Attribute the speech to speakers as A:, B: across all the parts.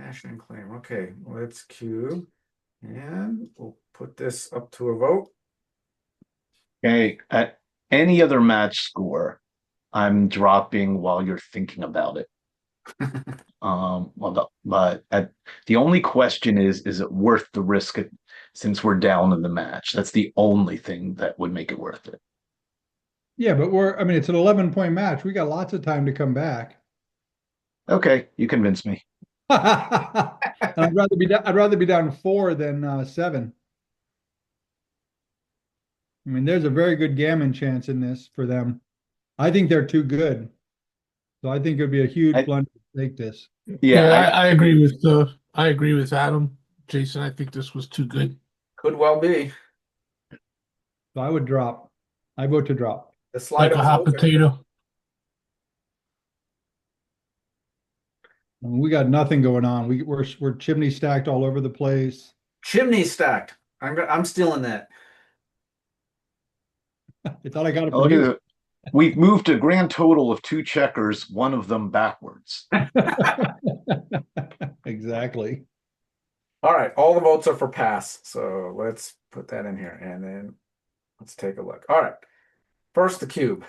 A: Action and claim, okay, let's queue. And we'll put this up to a vote.
B: Okay, at any other match score, I'm dropping while you're thinking about it. um, well, the- but at, the only question is, is it worth the risk it- since we're down in the match? That's the only thing that would make it worth it.
C: Yeah, but we're, I mean, it's an eleven point match. We got lots of time to come back.
B: Okay, you convinced me.
C: I'd rather be, da- I'd rather be down four than, uh, seven. I mean, there's a very good gammon chance in this for them. I think they're too good. So I think it'd be a huge
B: I-
C: blunder to take this.
B: Yeah, I-
D: I, I agree with uh, I agree with Adam, Jason. I think this was too good.
A: Could well be.
C: So I would drop. I vote to drop.
A: The
D: Like
A: slide
D: a hot
A: up.
D: potato.
C: I mean, we got nothing going on. We, we're, we're chimney stacked all over the place.
A: Chimney stacked. I'm, go- I'm stealing that.
C: It's all I got.
B: Oh, look at it. We've moved a grand total of two checkers, one of them backwards.
C: Exactly.
A: All right, all the votes are for pass, so let's put that in here and then let's take a look. All right. First, the cube.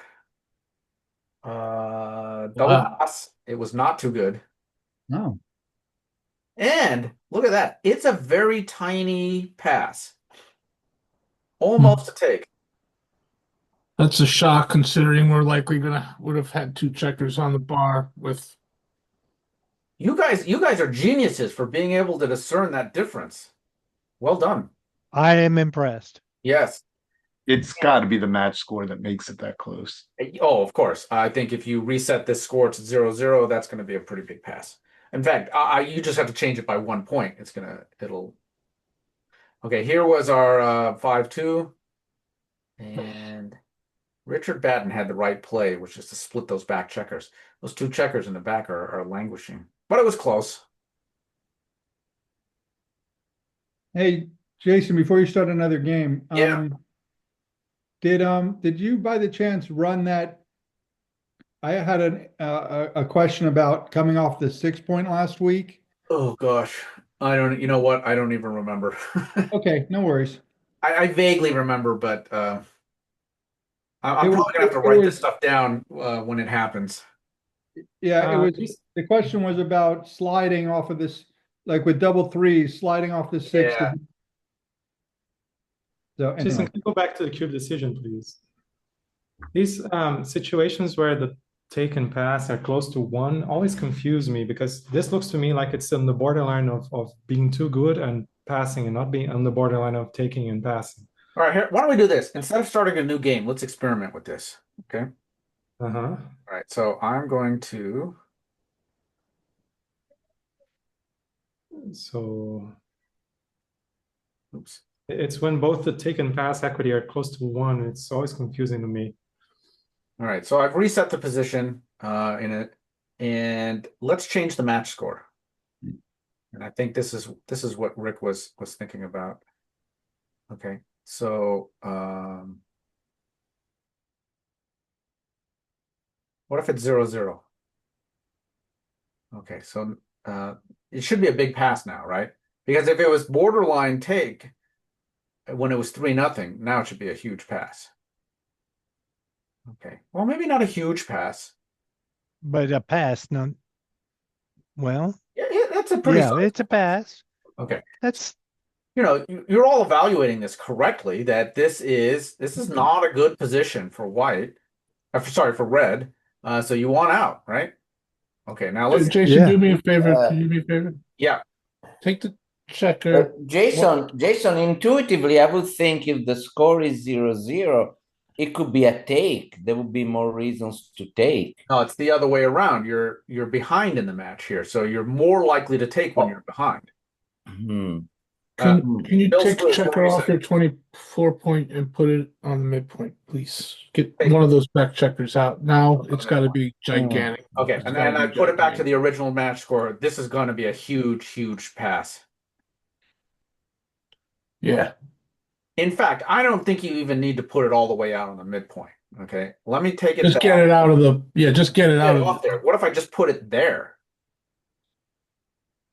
A: Uh, double
D: Wow.
A: pass. It was not too good.
C: No.
A: And look at that. It's a very tiny pass. Almost a take.
D: That's a shock considering we're likely gonna would have had two checkers on the bar with
A: You guys, you guys are geniuses for being able to discern that difference. Well done.
E: I am impressed.
A: Yes.
B: It's got to be the match score that makes it that close.
A: Oh, of course. I think if you reset this score to zero zero, that's going to be a pretty big pass. In fact, I, I, you just have to change it by one point. It's gonna, it'll. Okay, here was our uh, five two, and Richard Batten had the right play, which is to split those back checkers. Those two checkers in the back are, are languishing, but it was close.
C: Hey, Jason, before you start another game.
A: Yeah.
C: um, Did, um, did you by the chance run that? I had an, uh, a, a question about coming off the six point last week.
A: Oh gosh, I don't. You know what? I don't even remember.
C: Okay, no worries.
A: I, I vaguely remember, but uh, I, I'm
C: It was-
A: probably gonna have to
C: it
A: write this
C: was-
A: stuff down uh, when it happens.
C: Yeah, it
A: Uh,
C: was, the question was about sliding off of this, like with double threes, sliding off the six. to-
A: Yeah.
C: So
F: Jason,
C: anyway,
F: can you go back to the cube decision, please? These um, situations where the take and pass are close to one always confuse me because this looks to me like it's on the borderline of, of being too good and passing and not being on the borderline of taking and passing.
A: All right, here, why don't we do this? Instead of starting a new game, let's experiment with this.
F: Uh huh.
A: All right, so I'm going to.
F: So
A: Oops.
F: it's when both the take and pass equity are close to one. It's always confusing to me.
A: All right, so I've reset the position uh, in it, and let's change the match score. And I think this is this is what Rick was was thinking about. Okay, so um, what if it's zero zero? Okay, so uh, it should be a big pass now, right? Because if it was borderline take, when it was three nothing, now it should be a huge pass. Okay. Well, maybe not a huge pass.
E: But a pass, no. Well,
A: Yeah, yeah that's a pretty.
E: yeah,
A: solid-
E: it's a pass.
A: Okay.
E: That's
A: You know, you- you're all evaluating this correctly. That this is this
D: Mm-hmm.
A: is not a good position for white. Uh, for, sorry for red. Uh, so you want out, right? Okay. Now let's.
D: Jason,
E: Yeah.
D: do me a favor.
G: Uh,
D: Can you do me a favor?
A: Yeah.
D: Take the
G: Uh,
D: checker.
G: Jason, Jason, intuitively, I would think if the score is zero zero, it could be a take. There would be more reasons to take.
A: No, it's the other way around. You're you're behind in the match here, so you're more likely to take
D: Oh.
A: when you're behind.
G: Hmm.
A: Uh,
D: Can, can you
A: Bill's
D: take the
A: good,
D: checker
A: what do you
D: off your twenty-four point and put it on the midpoint, please? Get
A: Hey. Mm.
D: one of those back checkers out. Now it's gotta be gigantic.
A: okay,
D: It's
A: and
D: gotta
A: then
D: be
A: I put it back to
D: gigantic.
A: the original match score. This is going to be a huge, huge pass.
D: Yeah,
A: In fact, I don't think you even need to put it all the way out on the midpoint. Okay, let me take it.
D: just
A: back.
D: get it out of the, yeah, just get it
A: Yeah,
D: out
A: off
D: of,
A: there. What if I just put it there?